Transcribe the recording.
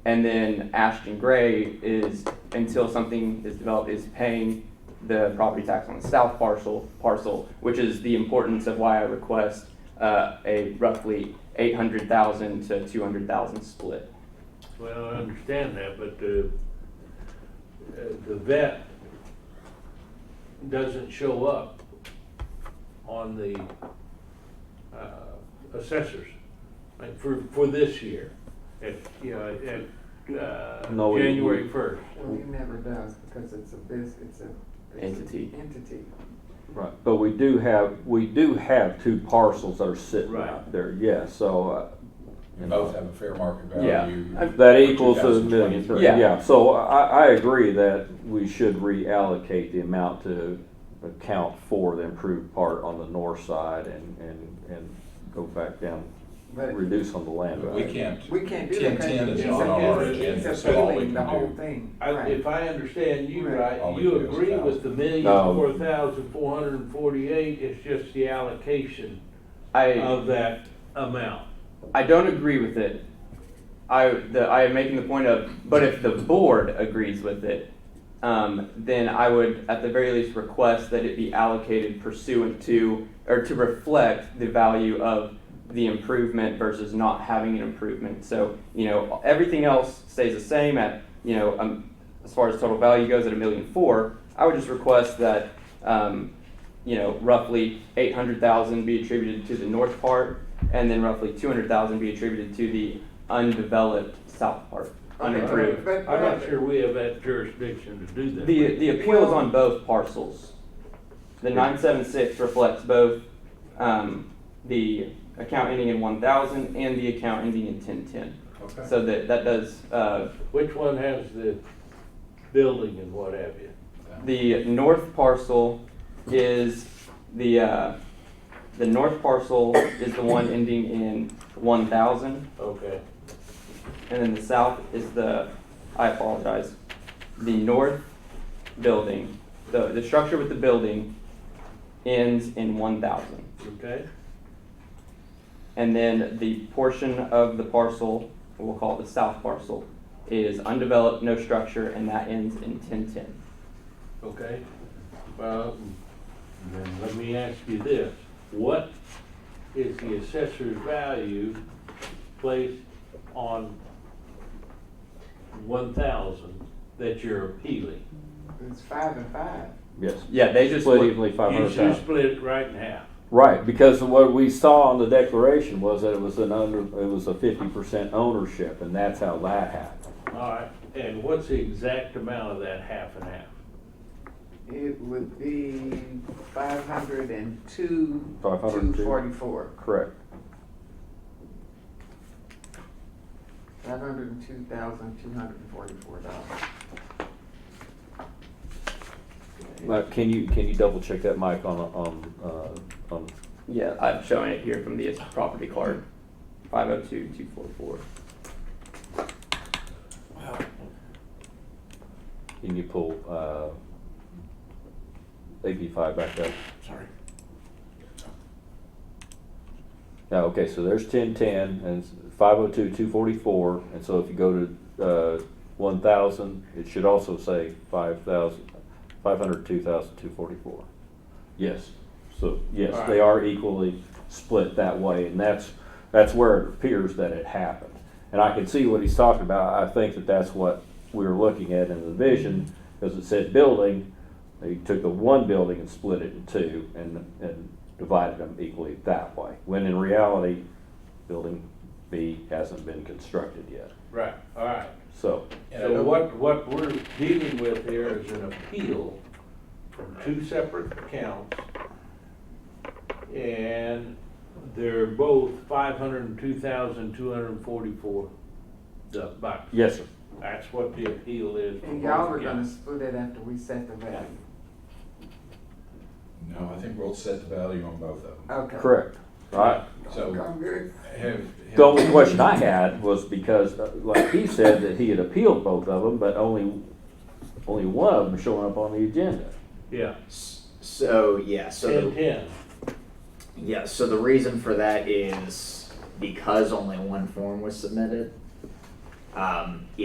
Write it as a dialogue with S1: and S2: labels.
S1: And then Ashton Gray is, until something is developed, is paying the property tax on the south parcel, parcel, which is the importance of why I request, uh, a roughly eight hundred thousand to two hundred thousand split.
S2: Well, I understand that, but the, uh, the vet doesn't show up on the uh, assessors, like for, for this year, at, you know, at uh,
S3: No, we-
S2: January
S3: we-
S2: first.
S4: Well, it never does because it's a bus, it's a. it's an
S1: Entity.
S4: Entity.
S3: Right. But we do have, we do have two parcels that are sitting
S2: Right.
S3: out there, yeah, so, uh,
S5: And both have a fair market
S1: Yeah.
S5: value.
S1: I've-
S3: That equals a million,
S5: 2023.
S1: Yeah.
S3: yeah, so I, I agree that we should reallocate the amount to account for the improved part on the north side and, and, and go back down,
S4: But
S3: reduce on the land
S5: But We
S3: value.
S5: can't,
S4: we can't do that. 'cause
S5: 1010 is
S4: he's
S2: not
S4: a-
S2: on our
S4: he's a-
S5: agenda,
S4: he's a
S5: so all we
S4: billing
S5: can
S4: The whole
S5: do-
S4: thing,
S2: I,
S4: right.
S2: if I understand you
S4: Right.
S2: right,
S5: All we
S2: you
S5: do is
S2: agree
S5: thousand.
S2: with the million
S3: No.
S2: four thousand four hundred and forty-eight, it's just the allocation
S1: I,
S2: of that amount.
S1: I don't agree with it. I, the, I am making the point of, but if the board agrees with it, um, then I would, at the very least, request that it be allocated pursuant to, or to reflect the value of the improvement versus not having an improvement. So, you know, everything else stays the same at, you know, um, as far as total value goes at a million four. I would just request that, um, you know, roughly eight hundred thousand be attributed to the north part, and then roughly two hundred thousand be attributed to the undeveloped south part, unimproved.
S4: But- but-
S2: I'm not sure we have that jurisdiction to do that.
S1: The, the appeal is on both parcels. The nine seven six reflects both, um, the account ending in one thousand and the account ending in ten ten.
S5: Okay.
S1: So that, that does, uh,
S2: Which one has the building and what have you?
S1: the north parcel is the, uh, the north parcel is the one ending in one thousand.
S2: Okay.
S1: And then the south is the, I apologize, the north building, the, the structure with the building ends in one thousand.
S2: Okay?
S1: And then the portion of the parcel, we'll call it the south parcel, is undeveloped, no structure, and that ends in ten ten.
S2: Okay? Well, then let me ask you this. What is the assessor's value placed on one thousand that you're appealing?
S4: It's five and five.
S3: Yes,
S1: Yeah, they just,
S3: split
S1: look-
S3: evenly five
S2: You
S3: hundred
S2: should
S3: thousand.
S2: split it right in half.
S3: Right, because what we saw on the declaration was that it was an under, it was a fifty percent ownership, and that's how that happened.
S2: All right, and what's the exact amount of that half and half?
S4: It would be five hundred and two,
S3: Five hundred
S4: two
S3: and two.
S4: forty-four.
S3: Correct.
S4: Five hundred and two thousand, two hundred and forty-four dollars.
S3: Now, can you, can you double check that, Mike, on, on, uh, on
S1: yeah, I'm showing it here from the property card, five oh two, two four four.
S3: Can you pull uh, AP five back up?
S5: Sorry.
S3: Now, okay, so there's ten ten and five oh two, two forty-four, and so if you go to uh, one thousand, it should also say five thousand, five hundred two thousand, two forty-four. Yes, so, yes, they are equally split that way, and that's, that's where it appears that it happened. And I can see what he's talking about, I think that that's what we were looking at in the vision, because it said building, they took the one building and split it in two and, and divided them equally that way, when in reality, building B hasn't been constructed yet.
S2: Right, all right.
S3: So,
S5: And I
S2: So
S5: don't-
S2: what, what we're dealing with here is an appeal from two separate accounts. And they're both five hundred and two thousand, two hundred and forty-four bucks.
S3: yes, sir.
S2: That's what the appeal is.
S4: And y'all
S2: for
S4: were
S2: both
S4: gonna
S2: accounts.
S4: split it after we set the value.
S5: No, I think we'll set the value on both of them.
S4: Okay.
S3: correct. Right.
S5: So
S4: I'm good.
S5: have.
S3: The only question I had was because, uh, like he said, that he had appealed both of them, but only, only one of them showing up on the agenda.
S2: Yeah,
S6: S- So yeah, so
S2: ten,
S6: the,
S2: ten.
S6: yeah, so the reason for that is because only one form was submitted. um,